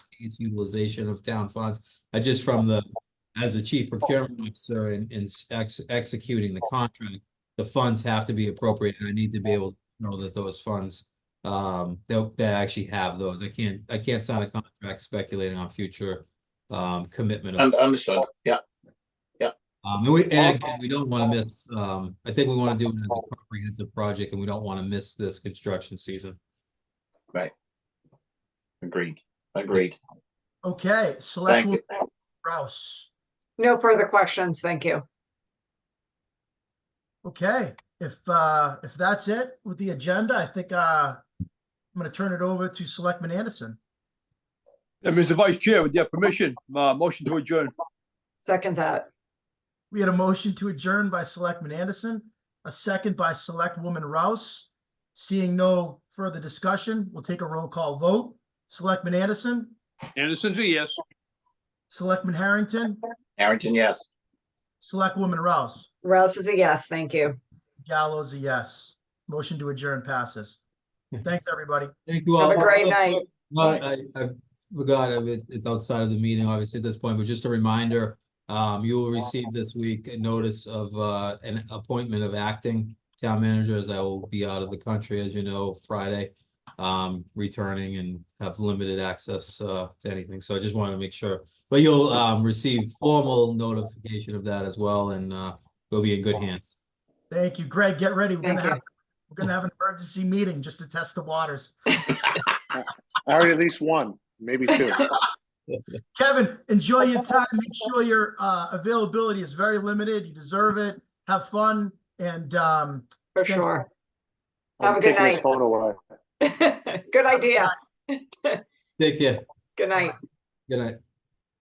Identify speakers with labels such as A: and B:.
A: use utilization of town funds. I just from the, as the chief procurement officer and, and ex- executing the contract, the funds have to be appropriate and I need to be able to know that those funds um, that, that actually have those. I can't, I can't sign a contract speculating on future um, commitment of
B: Un- Understood, yeah.
A: um, and we, and again, we don't wanna miss, um, I think we wanna do it as a comprehensive project and we don't wanna miss this construction season.
B: Agreed, agreed.
C: Okay, select
B: Thank you.
C: Rouse.
D: No further questions. Thank you.
C: Okay, if, uh, if that's it with the agenda, I think, uh, I'm gonna turn it over to Selectman Anderson.
E: And Mr. Vice Chair, with your permission, uh, motion to adjourn.
D: Second that.
C: We had a motion to adjourn by Selectman Anderson, a second by Selectwoman Rouse. Seeing no further discussion, we'll take a roll call vote. Selectman Anderson,
E: Anderson's a yes.
C: Selectman Harrington,
B: Harrington, yes.
C: Selectwoman Rouse.
D: Rouse is a yes. Thank you.
C: Gallows a yes. Motion to adjourn passes. Thanks, everybody.
A: Thank you all.
D: Have a great night.
A: But I, I forgot, I mean, it's outside of the meeting, obviously, at this point, but just a reminder, um, you will receive this week a notice of, uh, an appointment of acting town managers. I will be out of the country, as you know, Friday, um, returning and have limited access, uh, to anything. So I just wanted to make sure. But you'll, um, receive formal notification of that as well, and, uh, we'll be in good hands.
C: Thank you. Greg, get ready. We're gonna
D: Thank you.
C: have, we're gonna have an emergency meeting just to test the waters.
F: I already at least one, maybe two.
C: Kevin, enjoy your time. Make sure your uh availability is very limited. You deserve it. Have fun and um
D: For
C: Thanks.
D: sure. Have a
F: I'm
D: good
F: taking his
D: night.
F: Phone away.
D: Good idea.
A: Take care.
D: Good night.
A: Good night.